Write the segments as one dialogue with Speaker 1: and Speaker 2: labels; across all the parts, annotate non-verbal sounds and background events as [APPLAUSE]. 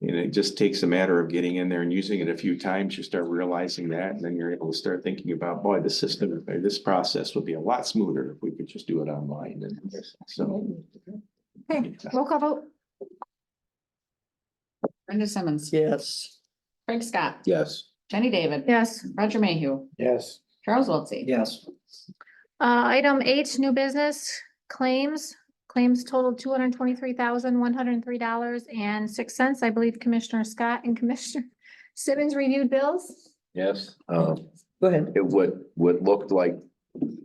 Speaker 1: And it just takes a matter of getting in there and using it a few times. You start realizing that, and then you're able to start thinking about, boy, the system, or this process would be a lot smoother if we could just do it online and so.
Speaker 2: Okay, roll call vote.
Speaker 3: Brenda Simmons,
Speaker 4: Yes.
Speaker 3: Craig Scott,
Speaker 5: Yes.
Speaker 3: Jenny David,
Speaker 2: Yes.
Speaker 3: Roger Mayhew,
Speaker 5: Yes.
Speaker 3: Charles Wiltie.
Speaker 4: Yes.
Speaker 2: Uh, item eight, new business claims. Claims total two hundred and twenty-three thousand, one hundred and three dollars and six cents. I believe Commissioner Scott and Commissioner [LAUGHS] Simmons reviewed bills.
Speaker 5: Yes. Um,
Speaker 4: Go ahead.
Speaker 5: it would, would look like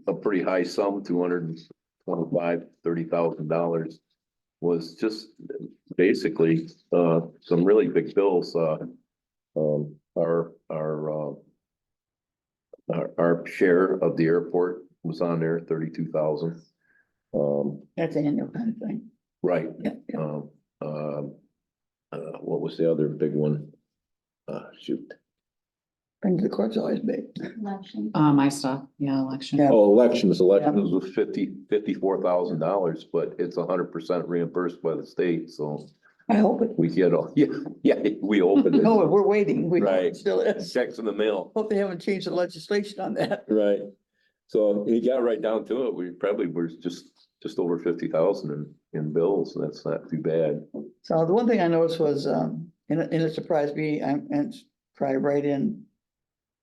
Speaker 5: a pretty high sum, two hundred and twenty-five, thirty thousand dollars. Was just basically, uh, some really big bills, uh, um, our, our, uh. Our, our share of the airport was on there, thirty-two thousand. Um,
Speaker 4: That's an annual kind of thing.
Speaker 5: right,
Speaker 4: Yeah, yeah.
Speaker 5: um, um, uh, what was the other big one? Uh, shoot.
Speaker 4: Bring to the court's always big.
Speaker 6: Election.
Speaker 3: Uh, my stuff, yeah, election.
Speaker 4: Yeah.
Speaker 5: Oh, elections, elections was fifty, fifty-four thousand dollars, but it's hundred percent reimbursed by the state, so
Speaker 4: I hope it.
Speaker 5: we get all, [LAUGHS] yeah, yeah, we opened
Speaker 4: No,
Speaker 5: it.
Speaker 4: we're waiting. We
Speaker 5: Right.
Speaker 4: still is.
Speaker 5: Checks in the mail.
Speaker 4: Hope they haven't changed the legislation on that.
Speaker 5: Right. So he got right down to it. We probably were just, just over fifty thousand in, in bills, and that's not too bad.
Speaker 4: So the one thing I noticed was, um, and it, and it surprised me, I'm, and it's probably right in,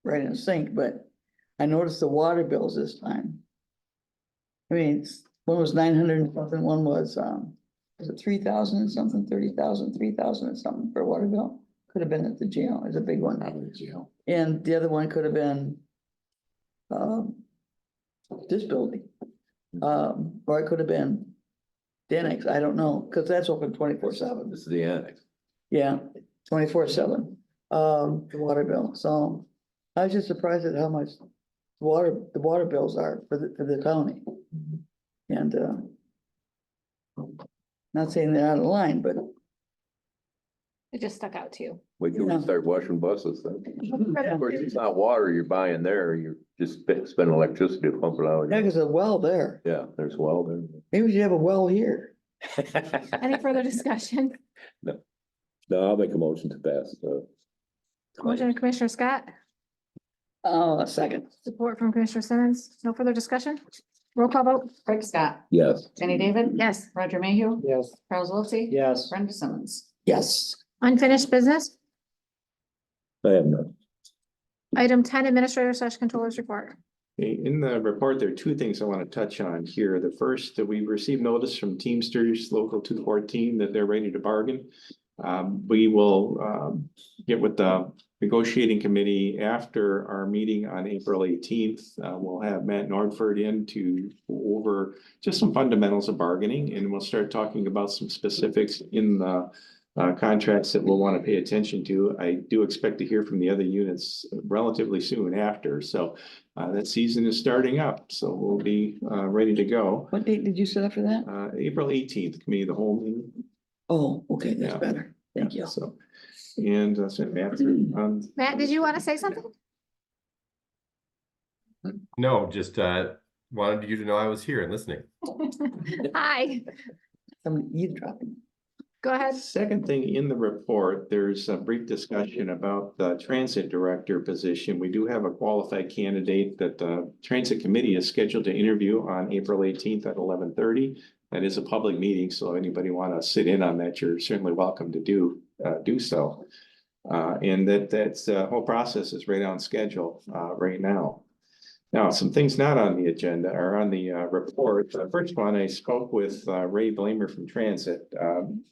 Speaker 4: right in sync, but I noticed the water bills this time. I mean, it's- one was nine hundred and something, one was, um, was it three thousand and something, thirty thousand, three thousand and something for a water bill? Could have been at the jail, it's a big one, and the other one could have been, um, this building. Um, or it could have been Denix, I don't know, because that's open twenty-four seven.
Speaker 5: This is the annex.
Speaker 4: Yeah, twenty-four seven, um, the water bill, so I was just surprised at how much water, the water bills are for the, for the county. And, uh, not saying they're out of line, but
Speaker 2: It just stuck out to you.
Speaker 5: We
Speaker 4: Yeah.
Speaker 5: can start washing buses then. Of course,
Speaker 2: It
Speaker 5: it's not water you're buying there. You're just spe- spending electricity to pump it out.
Speaker 4: yeah, there's a well there,
Speaker 5: Yeah, there's well there.
Speaker 4: maybe we should have a well here.
Speaker 2: Any further discussion?
Speaker 5: No, I'll make a motion to pass the.
Speaker 2: Motion of Commissioner Scott,
Speaker 4: Uh, a second,
Speaker 2: support from Commissioner Simmons. No further discussion? Roll call vote.
Speaker 3: Craig Scott,
Speaker 5: Yes.
Speaker 3: Jenny David,
Speaker 2: Yes.
Speaker 3: Roger Mayhew,
Speaker 7: Yes.
Speaker 3: Charles Wiltie.
Speaker 7: Yes.
Speaker 3: Brenda Simmons.
Speaker 4: yes,
Speaker 2: Unfinished business.
Speaker 5: I have none.
Speaker 2: Item ten, Administrator slash Controller's Report.
Speaker 1: Okay, In the report, there are two things I want to touch on here. The first, that we received notice from Teamsters Local two fourteen that they're ready to bargain. Um, we will, um, get with the negotiating committee after our meeting on April eighteenth. Uh, we'll have Matt Norford in to go over just some fundamentals of bargaining and we'll start talking about some specifics in the uh, contracts that we'll want to pay attention to. I do expect to hear from the other units relatively soon after, so uh, that season is starting up, so we'll be, uh, ready to go.
Speaker 4: what date did you set up for that?
Speaker 1: Uh, April eighteenth, committee of the whole meeting.
Speaker 4: Oh, okay, that's
Speaker 1: Yeah.
Speaker 4: better, thank you.
Speaker 1: So, and uh, that's it, Matt.
Speaker 4: [CLEARS THROAT]
Speaker 1: Um,
Speaker 2: Matt, did you want to say something?
Speaker 8: No, just uh, wanted you to know I was here and listening.
Speaker 2: Hi,
Speaker 4: Somebody eavesdropping.
Speaker 2: go ahead.
Speaker 1: Second thing in the report, there's a brief discussion about the transit director position. We do have a qualified candidate that the transit committee is scheduled to interview on April eighteenth at eleven thirty. That is a public meeting, so anybody want to sit in on that, you're certainly welcome to do, uh, do so. Uh, and that, that's, the whole process is right on schedule, uh, right now. Now, some things not on the agenda are on the, uh, report. The first one, I spoke with, uh, Ray Blamer from Transit. Um,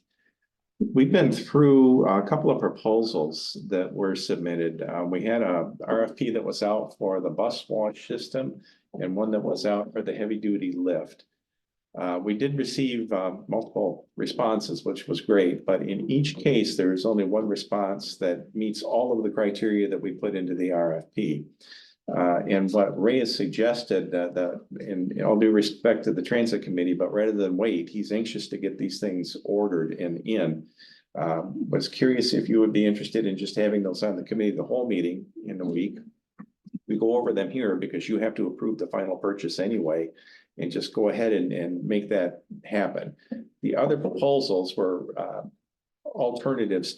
Speaker 1: We've been through a couple of proposals that were submitted. Uh, we had a RFP that was out for the bus wash system and one that was out for the heavy duty lift. Uh, we did receive, uh, multiple responses, which was great, but in each case, there is only one response that meets all of the criteria that we put into the RFP. Uh, and what Ray has suggested, that, the in all due respect to the transit committee, but rather than wait, he's anxious to get these things ordered and in. Um, was curious if you would be interested in just having those on the committee, of the whole meeting in a week. We go over them here because you have to approve the final purchase anyway and just go ahead and, and make that happen. The other proposals were, uh, alternatives